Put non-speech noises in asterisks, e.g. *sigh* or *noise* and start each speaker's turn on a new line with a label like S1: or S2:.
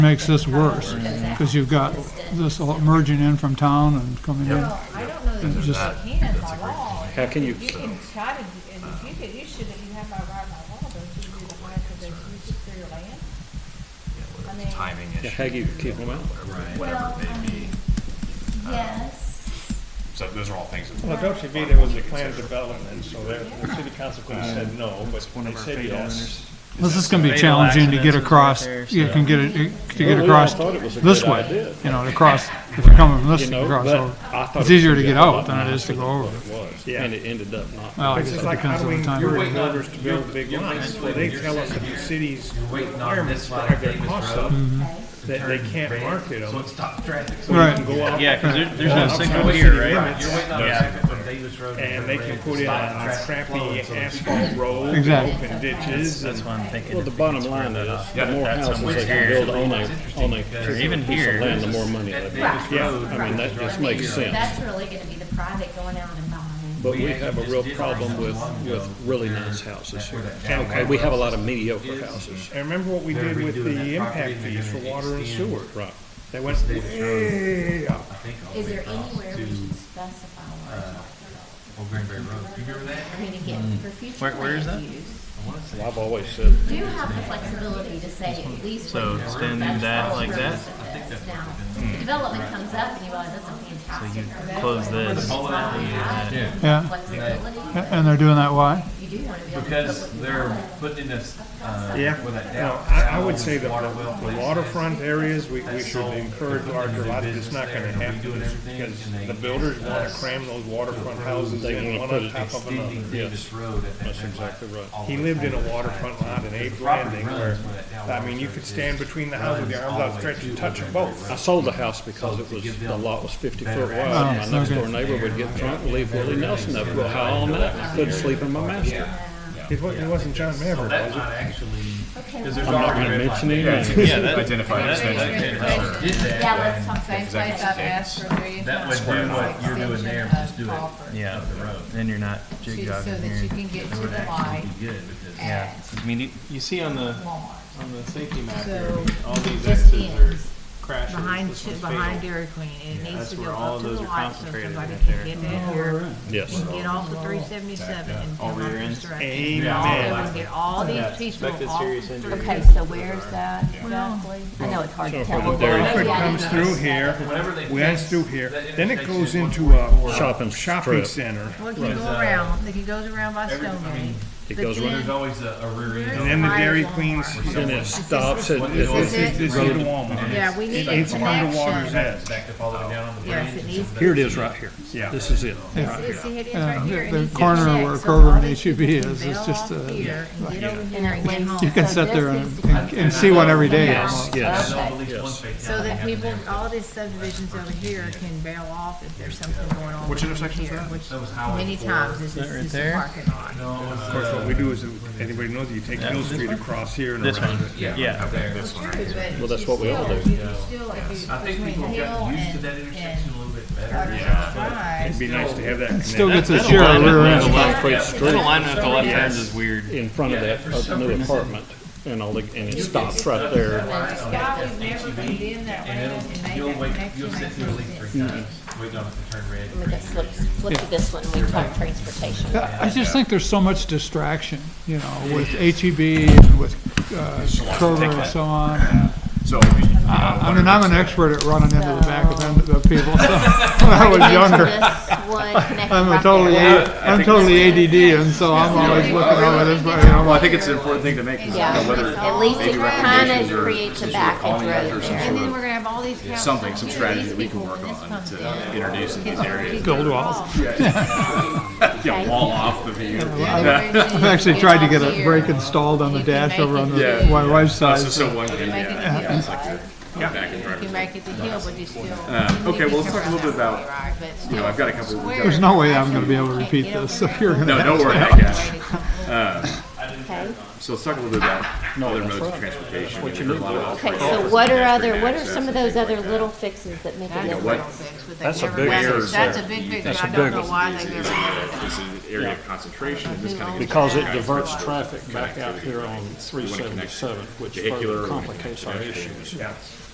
S1: makes this worse, because you've got this all merging in from town and coming in.
S2: Well, I don't know that you
S1: Just-
S2: can by law.
S3: How can you,
S2: You can try to, and if you could, you should, if you have by right by law, don't you do the high for the uses for your land? I mean,
S4: timing
S3: yeah,
S4: issue,
S3: how do you keep them out?
S4: whatever it may be.
S5: Yes.
S4: So those are all things that.
S6: Well, Dolce Vita was a planned development, so the the city council could have said no, but they said yes.
S1: This is gonna be challenging to get across, you can get it, to get
S3: Well, we all
S1: across
S3: thought it was a
S1: this
S3: good
S1: way,
S3: idea.
S1: you know, to
S3: *laughs*
S1: cross, if you're coming from this,
S3: You
S1: you
S3: know,
S1: can cross
S3: but
S1: over.
S3: I thought
S1: It's
S3: it was
S1: easier
S3: a
S1: to get
S3: hell of a
S1: out than
S3: lot
S1: it is to
S3: nicer
S1: go over.
S3: was,
S6: Yeah.
S3: And it ended up not.
S1: Well, I
S6: It's
S1: guess
S6: just
S1: it
S6: like
S1: depends
S6: how
S1: on
S6: do we
S1: the time.
S6: lure
S1: of day.
S6: builders to build big lots? Well, they tell us the city's requirements drive their costs up, that they can't market
S4: So
S6: them.
S4: it stops traffic.
S1: Right,
S6: Go out
S7: Yeah, because there, there's
S1: Yeah.
S7: no signal here, right?
S4: You're waiting on traffic from Davis Road. to
S6: and
S4: River
S6: they
S4: Red
S6: can
S4: to
S6: put in
S4: stop
S6: a
S4: traffic flowing,
S6: crappy
S4: so it's-
S6: asphalt road, and
S1: Exactly.
S6: open ditches,
S7: That's
S6: and
S7: why I'm thinking.
S3: Well, the
S7: if we
S3: bottom
S7: can square
S3: line
S7: that
S3: is,
S7: off.
S3: the more
S7: That's
S3: houses
S7: somewhere
S3: they can
S7: here.
S3: build on a, on a
S7: Or
S3: particular
S7: even
S3: piece of
S7: here.
S3: land, the more money they
S4: At
S3: make.
S4: Davis Road.
S3: I mean, that just makes sense.
S5: That's really gonna be the private going out and buying.
S3: But we have a real problem with, with really nice houses here. Okay, we have a lot of mediocre houses.
S6: and remember what we
S4: They're
S6: did with
S4: redoing
S6: the
S4: that property,
S6: impact
S4: they're
S6: fees for
S4: gonna
S6: water and
S4: extend
S6: sewer.
S3: Right.
S6: They went
S4: Davis Road,
S6: way up.
S4: I think, all the
S5: Is
S4: way
S5: there
S4: across
S5: anywhere we
S4: uh, to
S5: should specify what we're talking about?
S4: Old Granbury Road. Do you remember that?
S5: I mean, again,
S7: Mm.
S5: for future
S7: Where- where is
S5: land
S7: that?
S5: use,
S4: I wanna say.
S3: Well, I've always said,
S5: do have the flexibility to say at least.
S7: So
S5: what you're-
S7: extending
S5: that's
S7: that
S5: all
S7: like
S5: we're
S7: that? Hmm.
S5: gonna do this. Now, if development comes up and you realize that's a fantastic.
S7: Close this.
S4: Yeah.
S1: yeah, A-
S5: Flexibility,
S1: and they're doing that why?
S5: you do wanna be able to.
S4: Because they're putting in this, uh,
S6: Yeah,
S4: with that
S6: no,
S4: down.
S6: I, I would say the
S4: Water well
S6: the
S4: place.
S6: waterfront areas, we, we should
S4: sold.
S6: encourage larger lots, it's not gonna happen, because the builders wanna cram those waterfront houses
S3: They wanna
S6: in one
S3: put
S6: on
S3: it
S6: top of another.
S4: Extending Davis Road at that.
S3: That's
S4: back
S3: exactly
S4: lot
S3: right.
S4: all the
S6: He
S4: way
S6: lived in
S4: back
S6: a
S4: to the
S6: waterfront
S4: back.
S6: lot in
S4: Because
S6: Abe
S4: the property
S6: Landing
S4: runs
S6: where,
S4: where that down
S6: I mean, you
S4: waterfront
S6: could
S4: is.
S6: stand between the houses, with your
S4: Runs
S6: arms
S4: all the way
S6: outstretched and
S4: to Old
S6: touch them
S4: Granbury
S6: both.
S3: I
S4: Road.
S3: sold the house because it was, the lot was fifty foot wide. My next door neighbor would get drunk and leave Willie Nelson up real high all night. I Couldn't sleep in my master.
S6: It wasn't, it wasn't John
S4: So
S6: Maverick,
S4: that's
S6: was
S4: not actually,
S5: Okay,
S4: because
S5: well,
S4: there's
S3: I'm not
S4: already.
S3: gonna
S4: red
S3: mention
S4: line.
S3: any
S4: Yeah,
S3: names.
S7: Yeah, that,
S8: Identify
S7: that-
S4: Did that.
S5: Yeah, let's talk
S4: then
S5: about
S2: Same place I've asked for a million
S4: That
S2: times.
S4: would do what you're doing there, but just do it.
S2: Offer to-
S7: yeah,
S4: Of the road.
S7: then you're not
S2: So
S7: jig jogging
S2: that you
S7: here.
S2: can get to
S4: It would
S2: the light
S4: actually be good because.
S7: Yeah,
S2: at
S7: I mean, you, you see on the,
S2: Walmart.
S8: On the safety map here,
S2: So,
S8: all these
S5: just
S8: X's are
S5: ends.
S8: crashes.
S2: Behind,
S8: This one's fatal.
S2: behind Dairy Queen, it needs
S8: that's
S2: to
S8: where
S2: go
S8: all
S2: up
S8: of
S2: to
S8: those
S2: the
S8: are
S2: light so
S8: concentrated
S2: somebody
S8: right
S2: can
S8: there.
S2: get in here.
S3: Yes.
S2: and get off the three seventy-seven and
S8: All
S2: come out
S8: rear
S2: this
S8: ends.
S2: direction.
S6: Amen.
S2: All over and Get all these
S8: Yeah,
S2: people
S8: expected
S2: off
S8: serious
S2: the
S8: injury.
S2: three.
S9: Okay, so where's that exactly? I know it's hard to tell.
S3: from there-
S6: it? It comes through here,
S4: Whenever they fix
S6: west through here,
S4: that
S6: then it goes
S4: intersection,
S6: into a
S3: Shopping strip.
S6: shopping center.
S2: Well, it can go around, it can goes around by
S4: Every- I mean,
S2: Stonegate.
S3: uh, It
S2: But
S3: goes
S2: then-
S3: around,
S4: There's always a, a rear end.
S6: And then the Dairy Queen's,
S3: and it stops at, at
S6: this
S3: this
S6: is, this is the Walmart.
S2: Yeah, we need a
S6: It's under water's
S2: connection.
S6: edge.
S4: Backed up all the way down on the bridge.
S2: Yes, it needs.
S3: Here it is right here.
S6: Yeah.
S3: This is it.
S2: It's, it's, it is
S1: Uh,
S2: right here.
S1: the-
S2: It
S1: the
S2: needs to
S1: corner
S2: connect,
S1: where
S2: so
S1: Kroger
S2: all
S1: and
S2: these
S1: H-E-B
S2: people
S1: is,
S2: can
S1: is
S2: bail
S1: just,
S2: off
S1: uh,
S2: here and get over
S5: And
S2: here
S5: it
S2: and get
S5: links
S2: home.
S1: You can
S5: So
S1: sit there
S5: this
S1: and,
S5: needs to
S1: and- and see what every day
S3: Yes,
S1: is.
S3: yes.
S4: I know at least one fatality
S2: So that
S4: happened
S2: people,
S4: there.
S2: all these subdivisions over here can bail off if there's something going on. Which intersection is that? Which,
S4: That was Highway
S2: many
S4: four.
S2: times, this is, this is a parking lot.
S4: No, it was,
S6: Of course, what
S4: uh,
S6: we do is, anybody knows, you take Mill Street across here and
S7: this
S6: around.
S7: one, yeah.
S2: Well,
S3: that's what we all do.
S4: I think people got used to that intersection a little bit better.
S6: It'd be nice to have that
S1: It Still
S6: connection.
S1: gets a share of rear end.
S7: That alignment at the left turns is weird.
S3: in front of that uh, new apartment and all the, and it stops right there.
S2: Scott, we've never been in that way
S4: And
S2: and
S4: it'll,
S2: made
S4: you'll
S2: that
S4: wait,
S2: connection.
S4: you'll sit through at least three times, waiting on it to turn red.
S9: Look at slips, flip to this one, we talk transportation.
S1: Yeah, I just think there's so much distraction, you know, with HEB and with uh, Kroger and so on.
S8: So,
S1: I mean, I'm an expert at running into the back of end of people, *laughs* so, when I was younger. *laughs* I'm a totally, A- I'm totally ADD, and so I'm always looking over this, way, you know, I'm
S8: well, I
S1: like,
S8: think it's an important thing to make, is, you know,
S9: Yeah,
S8: whether
S9: at least it
S8: maybe recommendations
S9: kind
S8: or
S9: of creates a
S8: since we're
S9: back
S8: calling
S9: end
S8: it after
S9: road
S8: some
S9: there.
S2: And then we're gonna have all these cows.
S8: something, some
S2: Here,
S8: strategy
S2: these
S8: that we can
S2: people,
S8: work
S2: when this
S8: on
S2: comes
S8: to
S2: down,
S8: introduce in these
S2: people
S8: areas.
S2: can
S1: Gold
S2: get
S1: walls.
S2: across.
S9: Okay.
S8: Yeah, wall off the view. *laughs*
S1: I've actually tried to get a brake installed on the
S2: You can
S1: dash over
S2: make
S1: on
S2: it
S1: the-
S2: do-
S1: my wife's side.
S8: This is so one, thing,
S2: Make it
S8: yeah.
S2: the hill, right?
S8: back in
S2: You
S8: driver's
S2: make it the hill, but you still.
S8: Uh, okay, well, let's talk a little bit about,
S2: you
S8: know, I've got a couple- we've got a-
S1: There's no way I'm gonna be able to repeat this, so you're gonna.
S8: No, don't worry, I guess.
S9: Okay.
S6: So let's talk a little bit about
S3: No,
S6: other
S3: that's
S6: modes of
S3: right.
S6: transportation.
S3: What you
S6: There's
S3: mean
S6: a lot
S3: by
S6: of
S3: that.
S5: Okay,
S6: alterations
S5: so what
S6: to
S5: are other,
S6: pedestrian
S5: what are
S6: access
S5: some of
S6: and
S5: those
S6: things like
S5: other
S6: that.
S5: little fixes that make a
S2: That's a big
S6: what-
S5: difference?
S2: fix, but
S3: That's a
S2: they never
S3: big
S2: measure.
S3: fix.
S2: That's a big fix, but
S3: That's a
S2: I don't
S3: big
S2: know
S3: one.
S2: why they never measure.
S6: This is an area of concentration, and this kind of gets
S3: Because it diverts traffic back out here on three seventy-seven, which further complicates our issues.